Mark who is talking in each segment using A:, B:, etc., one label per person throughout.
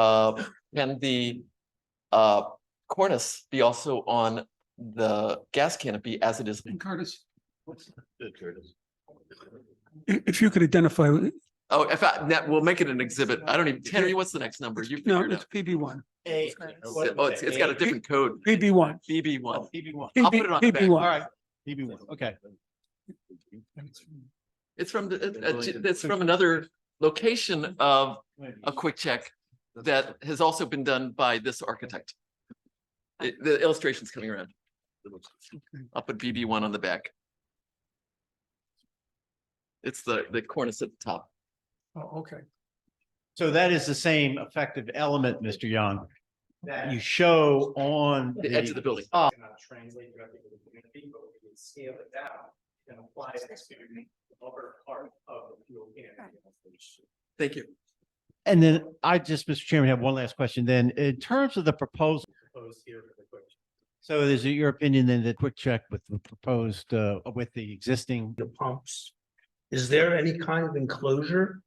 A: Uh, can the uh cornice be also on the gas canopy as it is?
B: And Curtis, what's,
C: I- If you could identify,
A: Oh, if I, that, we'll make it an exhibit. I don't even, Tanner, what's the next number? You
C: no,
A: figured it
C: it's
A: out.
C: PB one,
B: A.
A: It's- Oh, it's, it's got a different code,
C: PB one.
A: BB one.
B: PB one,
A: I'll put it on the back.
C: PB
B: all
C: one.
B: right, PB one, okay.
A: It's from, the- uh, uh, it's from another location of a quick check that has also been done by this architect. It- The illustration's coming around. I'll put BB one on the back. It's the, the cornice at the top.
C: Oh, okay.
B: So that is the same effective element, Mr. Young, that you show on.
A: The edge of the building.
B: Oh,
D: cannot translate directly to the community, but we can scale it down and apply it to the upper part of the fuel can.
A: Thank you.
B: And then I just, Mr. Chairman, have one last question then. In terms of the proposal,
D: Proposed here for the quick.
B: so is it your opinion then that quick check with the proposed, uh, with the existing?
E: the pumps. Is there any kind of enclosure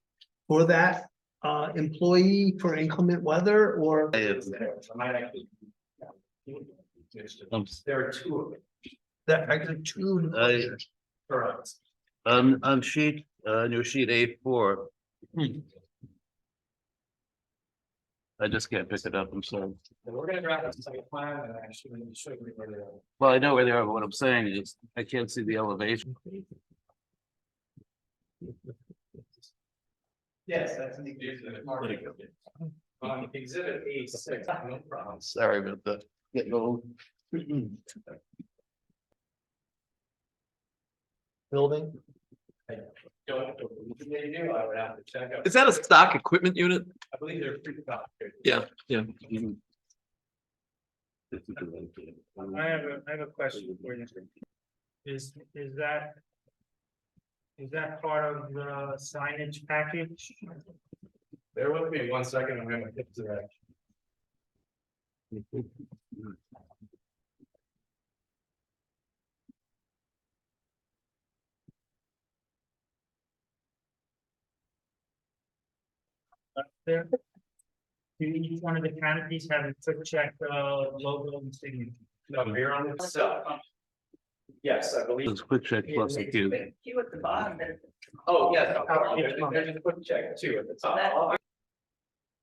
E: for that uh employee for inclement weather or?
D: I might actually. There are two of them.
E: That actually two.
F: Uh,
D: Correct.
F: on, on Um, sheet, uh, new sheet A four. I just can't pick it up, I'm sorry.
D: And we're gonna draft a site plan and actually show you where they are.
F: Well, I know where they are, but what I'm saying is I can't see the elevation.
D: Yes, that's an exhibit. On exhibit A six, no problem.
A: Sorry about the, getting old.
D: Building? I don't, know what they do, I would have to check out.
A: Is that a stock equipment unit?
D: I believe they're pretty about here.
A: Yeah, yeah.
G: I have a, I have a question for you. Is, is that? Is that part of the signage package?
D: Bear with me one second, I'm gonna get to that.
G: There? Do each one of the canopies have a quick check, uh, logo and signature?
D: No, you're on the cell. Yes, I believe.
F: It's quick check plus a cube.
H: You at the bottom, there's-
D: Oh, yes. no, no, There's there's a quick check too at the top.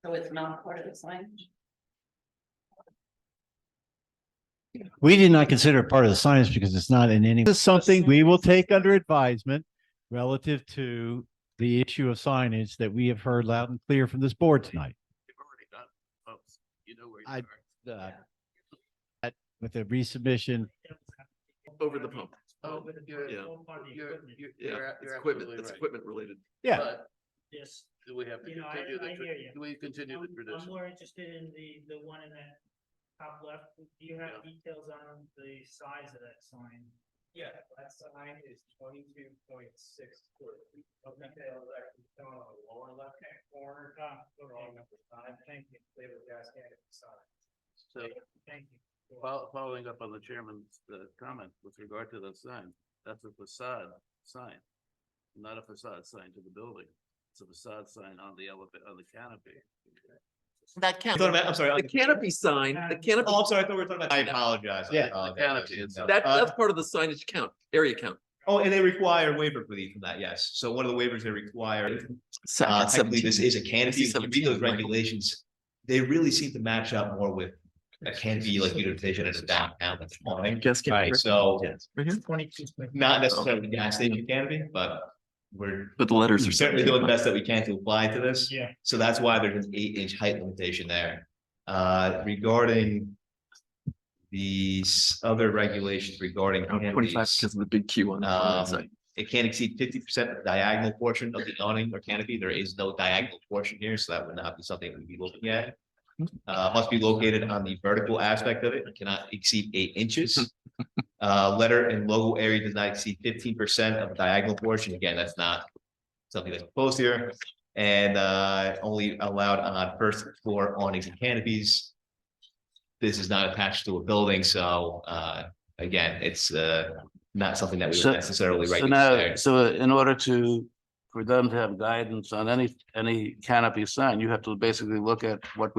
H: so it's not part of the signage?
B: We did not consider it part of the science because it's not in any. This is something we will take under advisement relative to the issue of signage that we have heard loud and clear from this board tonight. I- Uh, that- With the resubmission,
A: Over the pump.
G: Over the-
A: Yeah.
G: the whole part of the equipment.
A: Yeah, it's equipment, it's equipment related.
B: Yeah.
A: But
G: Yes,
F: Do we have
G: to You know, I- continue the I hear tra- you. do
F: we continue
G: I'm I'm more interested in the, the one in that top left. Do you have details on the size of that sign?
D: Yeah, that sign is twenty-two point six foot. Okay, that's actually shown on the lower left-hand corner,
G: Ah,
D: wrong
G: okay,
D: number five, thank you, flavor gas can at the sign.
F: So
G: thank you.
F: fol- following up on the chairman's uh comment with regard to the sign, that's a facade sign. Not a facade sign to the building. It's a facade sign on the elevator, on the canopy.
A: That canopy,
I: Thought about, I'm sorry. I-
A: the canopy sign, the canopy,
I: Oh, I'm sorry. I thought we were talking about. I apologize. I
B: Yeah.
I: apologize.
F: Canopy, it's-
I: No.
A: that,
I: Uh,
A: that's part of the signage count, area count.
I: Oh, and they require waiver relief from that, yes. So one of the waivers they require, uh, technically this is a canopy. If you read those regulations, they really seem to match up more with a canopy like utilization as a downtown. that's fine.
A: Guess.
I: Right, so
A: Right here?
I: not necessarily gas station canopy, but we're
A: But the letters are.
I: certainly doing the best that we can to apply to this.
G: Yeah.
I: So that's why there's an eight inch height limitation there. Uh, regarding these other regulations regarding
A: Twenty-five
I: canopies,
A: because of the big Q on the
I: Um,
A: side.
I: it can't exceed fifty percent of the diagonal portion of the awning or canopy. There is no diagonal portion here, so that would not be something we'd be looking at. Uh, must be located on the vertical aspect of it. It cannot exceed eight inches. Uh, letter and logo area does not exceed fifteen percent of the diagonal portion. Again, that's not something that's proposed here. And uh, only allowed on first floor awnings and canopies. This is not attached to a building, so uh, again, it's uh, not something that we
F: So-
I: would necessarily
F: So
I: regulate.
F: now,
I: there.
F: so in order to, for them to have guidance on any, any canopy sign, you have to basically look at what we